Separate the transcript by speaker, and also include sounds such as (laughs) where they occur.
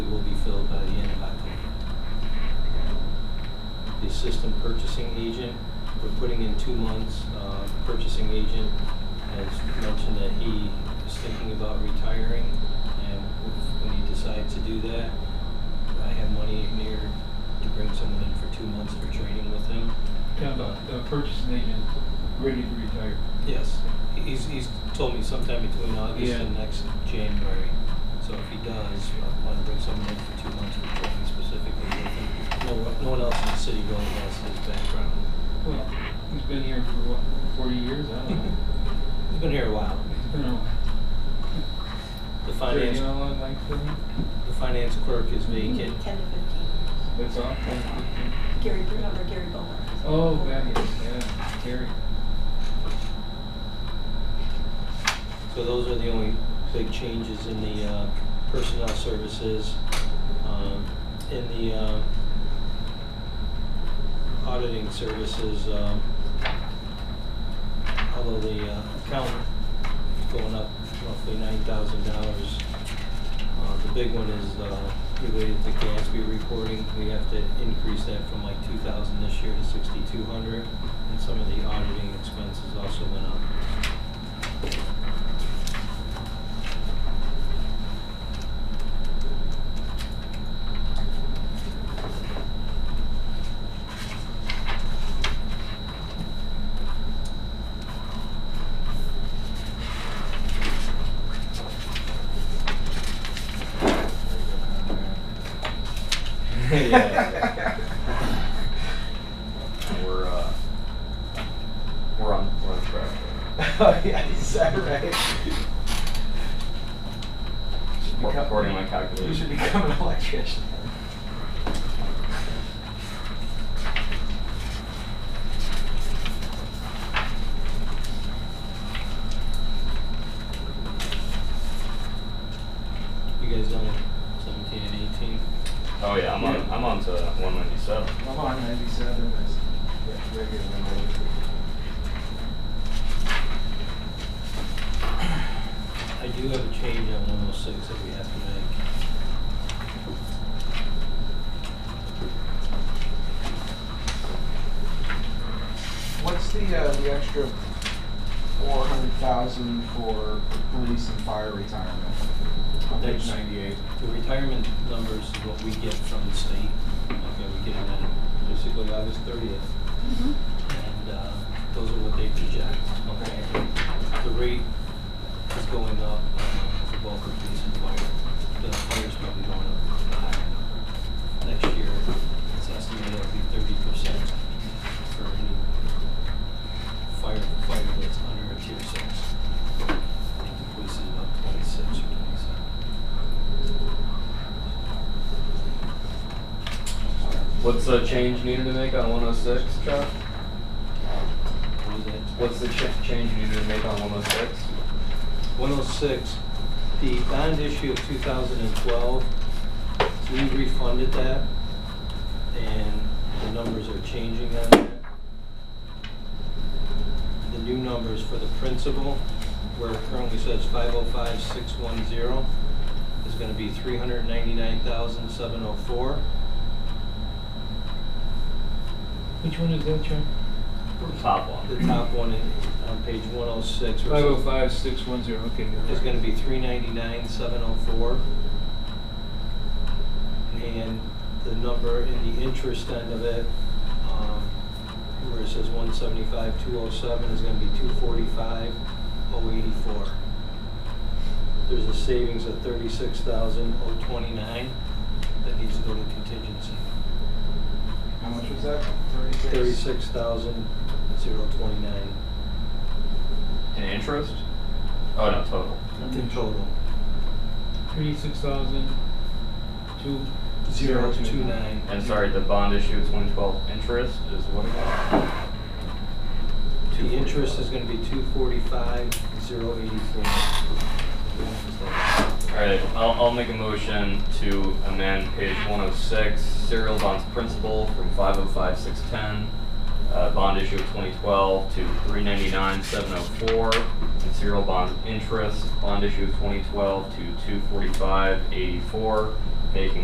Speaker 1: assistant purchasing agent. We're putting in two months. Uh, Purchasing agent has mentioned that he is thinking about retiring, and if- when he decides to do that, I have money in here to bring someone in for two months for training with him.
Speaker 2: Kind of a, a purchasing agent ready to retire.
Speaker 1: Yes, he's, he's told me sometime between August
Speaker 2: Yeah.
Speaker 1: and next January. So if he does, I want to bring someone in for two months for training specifically with him. No, one- no one else in the city really has his background.
Speaker 2: (laughs) Well, he's been here for what, forty years? I don't know.
Speaker 1: He's been here a while.
Speaker 2: It's been a
Speaker 1: The
Speaker 2: thirty,
Speaker 1: finance,
Speaker 2: you know, like thirty.
Speaker 1: the finance clerk is vacant.
Speaker 3: Ten to fifteen.
Speaker 2: That's all.
Speaker 3: Gary, remember Gary Bowler?
Speaker 2: Oh, that is, yeah, Gary.
Speaker 1: So those are the only big changes in the uh, personnel services. Um, In the uh, auditing services, um, although the uh, account is going up roughly nine thousand dollars, the big one is uh, related to Gatsby reporting. We have to increase that from like two thousand this year to sixty-two hundred, and some of the auditing expenses also went up. (laughs)
Speaker 4: Yeah. We're, uh, we're on, we're on track.
Speaker 5: (laughs) Oh, yeah, is that right? Should
Speaker 4: We're
Speaker 5: become-
Speaker 4: According to my
Speaker 5: You should
Speaker 4: calculation.
Speaker 5: become an electrician.
Speaker 1: You guys done seventeen and eighteen?
Speaker 4: (laughs) Oh, yeah, I'm on,
Speaker 5: Yeah.
Speaker 4: I'm on to one ninety-seven.
Speaker 5: I'm on ninety-seven, that's that's regular.
Speaker 1: I do have a change on one oh six that we have to make.
Speaker 5: What's the, uh, the extra four hundred thousand for police and fire retirement? On page
Speaker 1: That's-
Speaker 5: ninety-eight.
Speaker 1: The retirement numbers is what we get from the state. Okay, we get them in basically August thirtieth. And, uh, those are what they project, okay? The rate is going up uh, for both the police and fire. The fire's probably going up the higher number. Next year, it's estimated it'll be thirty percent for any fire, fire that's under a tier six. I think the police is about twenty-six or twenty-seven.
Speaker 4: What's the change needed to make on one oh six, Chuck?
Speaker 1: What was that?
Speaker 4: What's the ch- change needed to make on one oh six?
Speaker 1: 106, the bond issue of 2012, we refunded that, and the numbers are changing on that. The new numbers for the principal, where it currently says 505610, is gonna be 399,704.
Speaker 2: Which one is that, Chuck?
Speaker 4: Top
Speaker 1: The
Speaker 4: one.
Speaker 1: top one in- on page 106. where it
Speaker 2: Five oh
Speaker 1: says-
Speaker 2: five, six one zero, okay.
Speaker 1: is gonna be three ninety-nine, seven oh four. And the number in the interest end of it, um, where it says one seventy-five, two oh seven, is gonna be two forty-five, oh eighty-four. There's a savings of thirty-six thousand, oh twenty-nine, that needs to go to contingency.
Speaker 5: How much was that? Thirty-six?
Speaker 1: Thirty-six thousand, zero twenty-nine
Speaker 4: In interest? Oh, no, total.
Speaker 1: in total.
Speaker 2: Thirty-six thousand, two,
Speaker 5: Zero two
Speaker 1: two
Speaker 5: nine.
Speaker 1: nine.
Speaker 4: And sorry, the bond issue is one twelve. Interest is what again?
Speaker 1: The interest is gonna be two forty-five, zero eighty-four.
Speaker 4: All right, I'll, I'll make a motion to amend page one oh six, serial bonds principal from five oh five six ten, uh, bond issue of twenty twelve to three ninety-nine seven oh four, and serial bonds interest, bond issue of twenty twelve to two forty-five eighty-four, making